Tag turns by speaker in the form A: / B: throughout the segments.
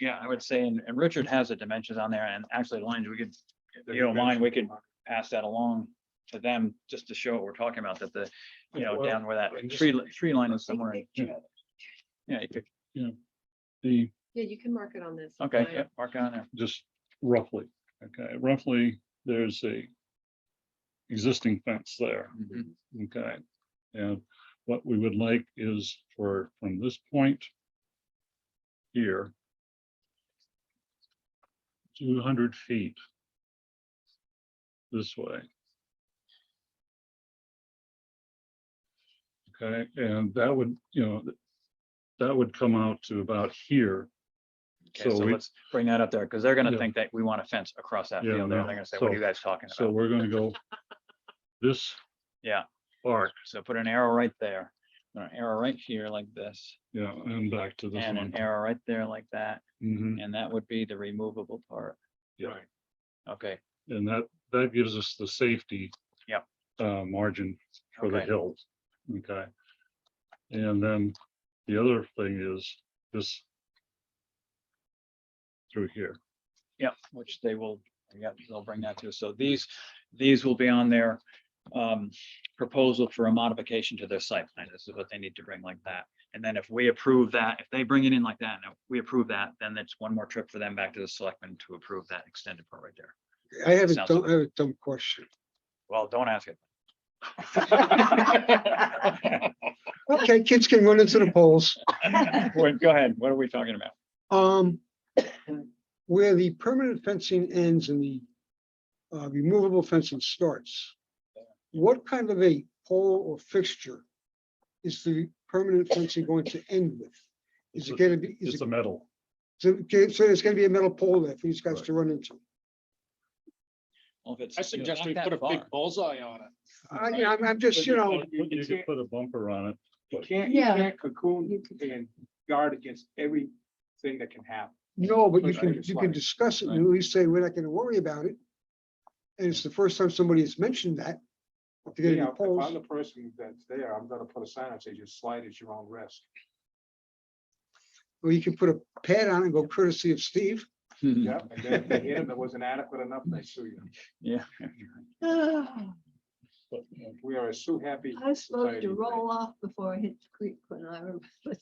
A: yeah, I would say, and, and Richard has the dimensions on there and actually the lines, we could, if you don't mind, we could pass that along to them just to show what we're talking about, that the, you know, down where that tree, li- tree line is somewhere. Yeah, you could,
B: The,
C: Yeah, you can mark it on
D: Oh,
C: this.
A: okay,
C: Mine.
A: yeah, mark it on there.
B: just roughly, okay, roughly, there's a existing fence there,
A: Mhm.
B: okay? And what we would like is for, from this point here, two hundred feet this way. Okay, and that would, you know, that would come out to about here.
A: Okay,
B: So
A: so
B: we-
A: let's bring that up there, because they're gonna
B: Yeah.
A: think that we want a fence across that
B: Yeah,
A: field there.
B: no.
A: They're gonna say, what are you
B: So-
A: guys talking
B: So
A: about?
B: we're gonna go this.
A: Yeah.
B: Arc,
A: So put an arrow right there, an arrow right here like this,
B: yeah, and back to this
A: and
B: one.
A: an arrow right there like that,
B: Mhm,
A: and that would be the removable part.
B: yeah,
A: Okay,
B: and that, that gives us the safety.
A: Yep.
B: Uh, margin for the
A: okay,
B: hills, okay? And then the other thing is this. Through here,
A: yep, which they will, yeah, they'll bring that to, us. so these, these will be on their um, proposal for a modification to their site plan, this is what they need to bring like that. And then if we approve that, if they bring it in like that, and we approve that, then that's one more trip for them back to the selectmen to approve that extended part right there.
E: I have a
A: Sounds
E: dumb,
A: good.
E: I have a dumb question.
A: Well, don't ask it.
E: Okay, kids can run into the polls.
A: Wait, Go ahead, what are we talking about?
E: Um, where the permanent fencing ends and the uh, removable fencing starts. What kind of a pole or fixture is the permanent fencing going to end with? Is
B: It's a-
E: it gonna be,
B: it's
E: is it,
B: the metal,
E: so okay, so there's gonna be a metal pole there for these guys
B: Right.
E: to run into?
A: Well, if it's-
F: I
A: you know,
F: suggest
A: not
F: we
A: that
F: put a
A: far.
F: big bullseye on it.
E: I, you know, I'm, I'm just, you know,
B: you you could put a bumper on it,
F: You can't, you can't cocoon and guard against everything that can happen.
E: no, but you
F: Push
E: can,
F: it
E: you can
F: aside.
E: discuss it and at least say, we're not gonna worry about it. And it's the first time somebody has mentioned that. If they're
F: You
E: gonna be
F: know, if
E: poles.
F: I'm the person that's there, I'm gonna put a sign that says you slide at your own risk.
E: Or you can put a pad on and go courtesy of Steve.
A: Hmm.
F: Yep, and then if they hit them, that wasn't adequate enough, they sue you.
A: Yeah.
D: Oh,
B: but
F: We are a sue happy.
D: I was supposed
F: Society,
D: to
F: right?
D: roll off before I hit the creek when I was.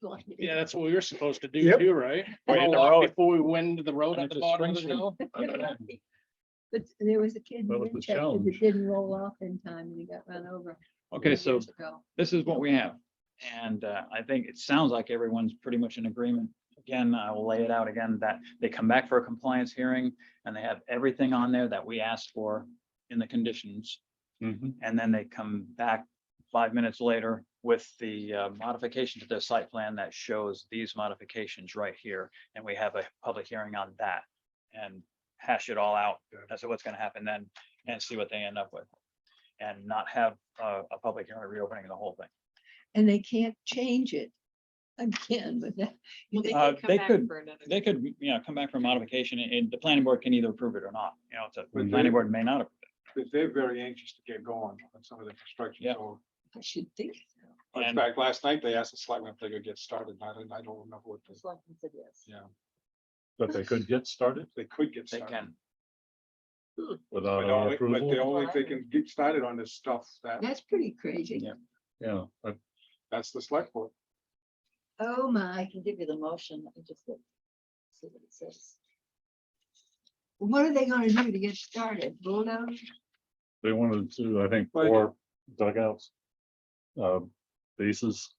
D: blinded.
G: Yeah, that's what we were supposed to do
E: Yep.
G: too, right?
A: Right,
G: Roll
A: the
G: off
A: road.
G: Before we went to the road
A: And
G: at
A: it's
G: the
A: a
G: bottom of the
A: spring
G: hill.
D: But there was a kid
B: That
D: in
B: was the
D: Winchester
B: challenge.
D: that didn't roll off in time and he got run over.
A: Okay,
D: years
A: so
D: ago.
A: this is what we have. And uh, I think it sounds like everyone's pretty much in agreement. Again, I will lay it out again that they come back for a compliance hearing and they have everything on there that we asked for in the conditions.
B: mhm,
A: And then they come back five minutes later with the uh, modification to their site plan that shows these modifications right here. And we have a public hearing on that and hash it all out as to what's gonna happen then and see what they end up with. And not have uh, a public hearing reopening the whole thing.
D: And they can't change it again, but that.
C: Well, they
A: Uh,
C: could come
A: they
C: back
A: could-
C: for another-
A: They could, you know, come back for modification and- and the planning board can either approve it or not, you know, it's a- the planning board may not. approve it.
F: But They're very anxious to get going on some of the construction.
A: Yeah.
F: so-
D: I should think so.
F: In
A: And-
F: fact, last night they asked the selectmen if they could get started. and I don't, I don't remember what this,
D: It's like it's a yes.
F: yeah,
B: but they could get started
F: they could get
A: They
F: started.
A: can,
B: without our
F: But only- but they
B: approval,
F: only, if they can get started on this stuff, that,
D: That's pretty crazy.
A: Yeah.
B: yeah, but
F: that's the select board.
D: Oh my, I can give you the motion. Let me just look. See what it says. What are they gonna do to get started? Bulldoze?
B: they wanted to, I think,
F: Like-
B: four dugouts. Uh, bases.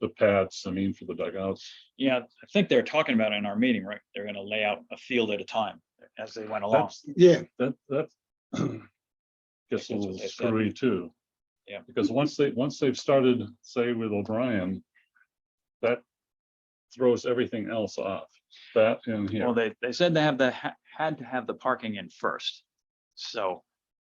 B: The pads, I mean, for the dugouts.
A: yeah, I think they're talking about it in our meeting, right? They're gonna lay out a field at a time as they went along.
B: That's,
E: Yeah,
B: that, that.
A: That's
B: Gets a
A: what
B: little
A: they said.
B: screwy too.
A: Yeah.
B: Because once they, once they've started, say with O'Brien. That throws everything else off, that and here,
A: Well, they, they said they have the, ha- had to have the parking in first. So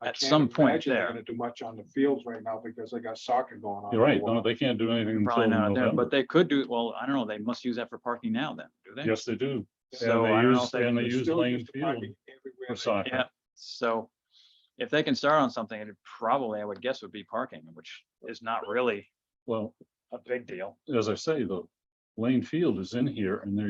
F: I
A: At
F: can't
A: some point
F: imagine they're
A: there.
F: gonna Do much on the fields right now because they got soccer going on.
B: you're right,
F: for a
B: no,
F: while.
B: they can't do anything until
A: probably not, there,
B: November.
A: but they could do, well, I don't know, they must use that for parking now then, do they?
B: Yes, they do,
A: So
B: they
A: I don't know
B: use-
A: if they
B: and
A: can
B: they
F: They
B: use
F: still
B: lane
F: the parking
B: field
F: everywhere
B: for
F: they-
B: soccer,
A: Yeah, so if they can start on something, it probably, I would guess, would be parking, which is not really
B: well,
A: a big deal.
B: as I say, the, Lane Field is in here and they're